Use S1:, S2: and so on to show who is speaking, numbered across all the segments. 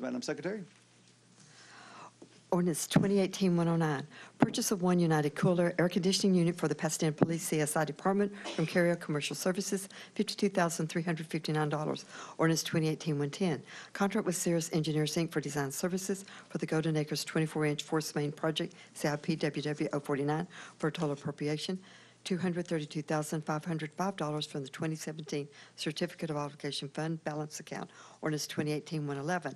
S1: Madam Secretary.
S2: Ordinance 2018-109, purchase of one United Cooler air conditioning unit for the Pasadena Police CSI Department from Carrier Commercial Services, $52,359. Ordinance 2018-110, contract with Cirrus Engineers, Inc. for design services for the Golden Acres 24-inch force main project, CIP WW049, for a total appropriation $232,505 from the 2017 Certificate of Obligation Fund Balance Account, ordinance 2018-111.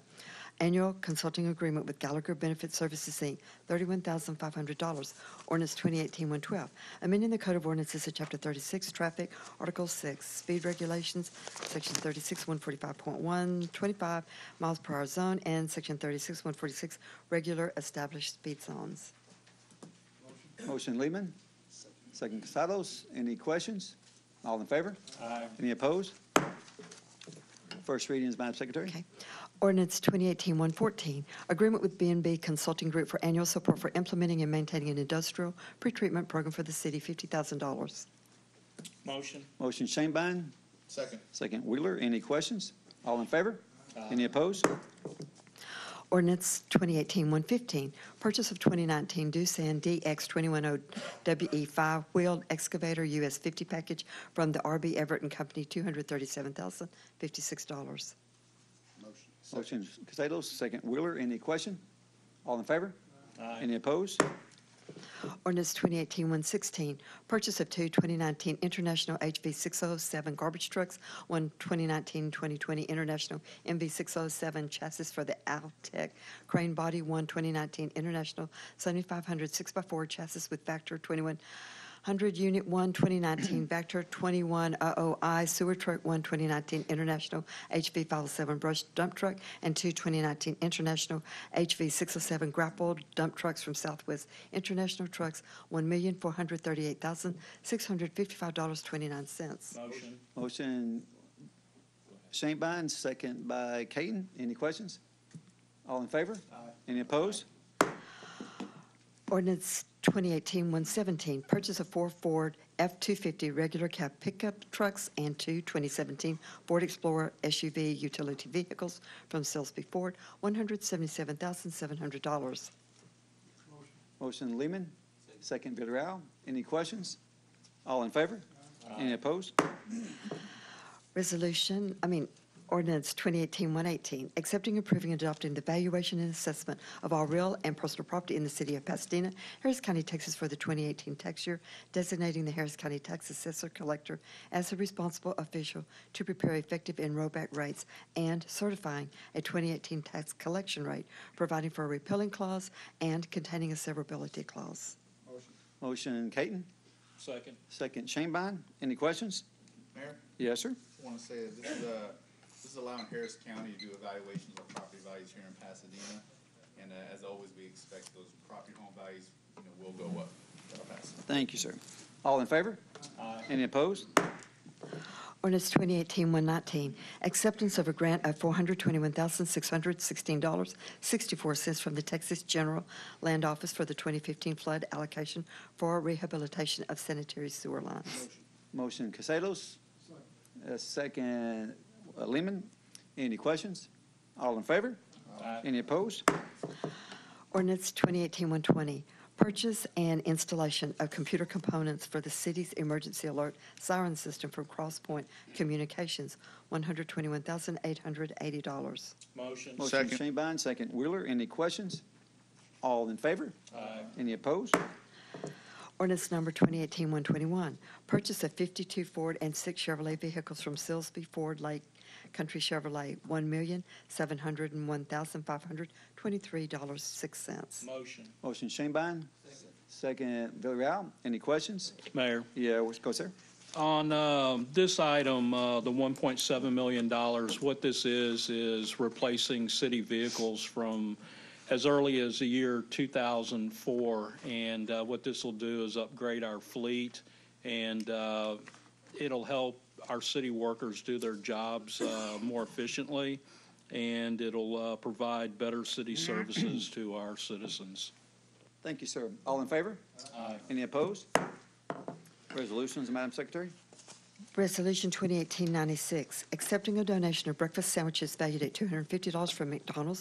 S2: Annual consulting agreement with Gallagher Benefit Services, Inc., $31,500, ordinance 2018-112. Amending the Code of Ordinances of Chapter 36, Traffic, Article 6, Speed Regulations, Section 36, 145.1, 25 miles per hour zone, and Section 36, 146, Regular Established Speed Zones.
S1: Motion Lehman, second Casados. Any questions? All in favor? Aye. Any opposed? First reading is Madam Secretary.
S2: Okay. Ordinance 2018-114, agreement with b and b Consulting Group for annual support for implementing and maintaining an industrial pretreatment program for the city, $50,000.
S3: Motion.
S1: Motion Shanebine,
S3: Second.
S1: second Wheeler. Any questions? All in favor? Any opposed?
S2: Ordinance 2018-115, purchase of 2019 Doosan DX210WE five-wheeled E excavator US 50 package from the RB Everett and Company, $237,056.
S1: Motion Casados, second Wheeler. Any question? All in favor?
S3: Aye.
S1: Any opposed?
S2: Ordinance 2018-116, purchase of two 2019 International HV607 garbage trucks, one 2019-2020 International MV607 chassis for the Altec crane body, one 2019 International 7500 6x4 chassis with Vector 2100 Unit 1, 2019 Vector 2100I sewer truck, one 2019 International HV507 brush dump truck, and two 2019 International HV607 grapple dump trucks from Southwest International Trucks, $1,438,655.29.
S3: Motion.
S1: Motion Shanebine, second by Katon. Any questions? All in favor? Aye. Any opposed?
S2: Ordinance 2018-117, purchase of four Ford F-250 regular cab pickup trucks and two 2017 Ford Explorer SUV utility vehicles from Salisbury Ford, $177,700.
S1: Motion Lehman, second Villarreal. Any questions? All in favor? Any opposed?
S2: Resolution, I mean, ordinance 2018-118, accepting, approving, and adopting the valuation and assessment of all real and personal property in the city of Pasadena, Harris County, Texas for the 2018 tax year, designating the Harris County Tax Assessor Collector as the responsible official to prepare effective and rollback rates and certifying a 2018 tax collection rate, providing for a repealing clause and containing a severability clause.
S1: Motion Katon,
S3: Second.
S1: second Shanebine. Any questions?
S4: Mayor,
S1: Yes, sir.
S4: I want to say that this is, uh, this is allowing Harris County to do evaluations of property values here in Pasadena. And, uh, as always, we expect those property home values, you know, will go up. That'll pass.
S1: Thank you, sir. All in favor?
S3: Aye.
S1: Any opposed?
S2: Ordinance 2018-119, acceptance of a grant of $421,616.64 from the Texas General Land Office for the 2015 flood allocation for rehabilitation of sanitary sewer lines.
S1: Motion Casados, uh, second uh, Lehman. Any questions? All in favor?
S3: Aye.
S1: Any opposed?
S2: Ordinance 2018-120, purchase and installation of computer components for the city's emergency alert siren system from CrossPoint Communications, $121,880.
S3: Motion.
S1: Motion Shanebine, second Wheeler. Any questions? All in favor?
S3: Aye.
S1: Any opposed?
S2: Ordinance number 2018-121, purchase of 52 Ford and six Chevrolet vehicles from Silsby Ford Lake Country Chevrolet, $1,701,523.06.
S3: Motion.
S1: Motion Shanebine, second Villarreal. Any questions?
S5: Mayor,
S1: Yeah, what's- go, sir.
S5: on um, this item, uh, the $1.7 million, what this is, is replacing city vehicles from as early as the year 2004. And uh, what this will do is upgrade our fleet, and uh, it'll help our city workers do their jobs uh, more efficiently, and it'll uh, provide better city services to our citizens.
S1: Thank you, sir. All in favor? Aye. Any opposed? Resolutions, Madam Secretary?
S2: Resolution 2018-96, accepting a donation of breakfast sandwiches valued at $250 from McDonald's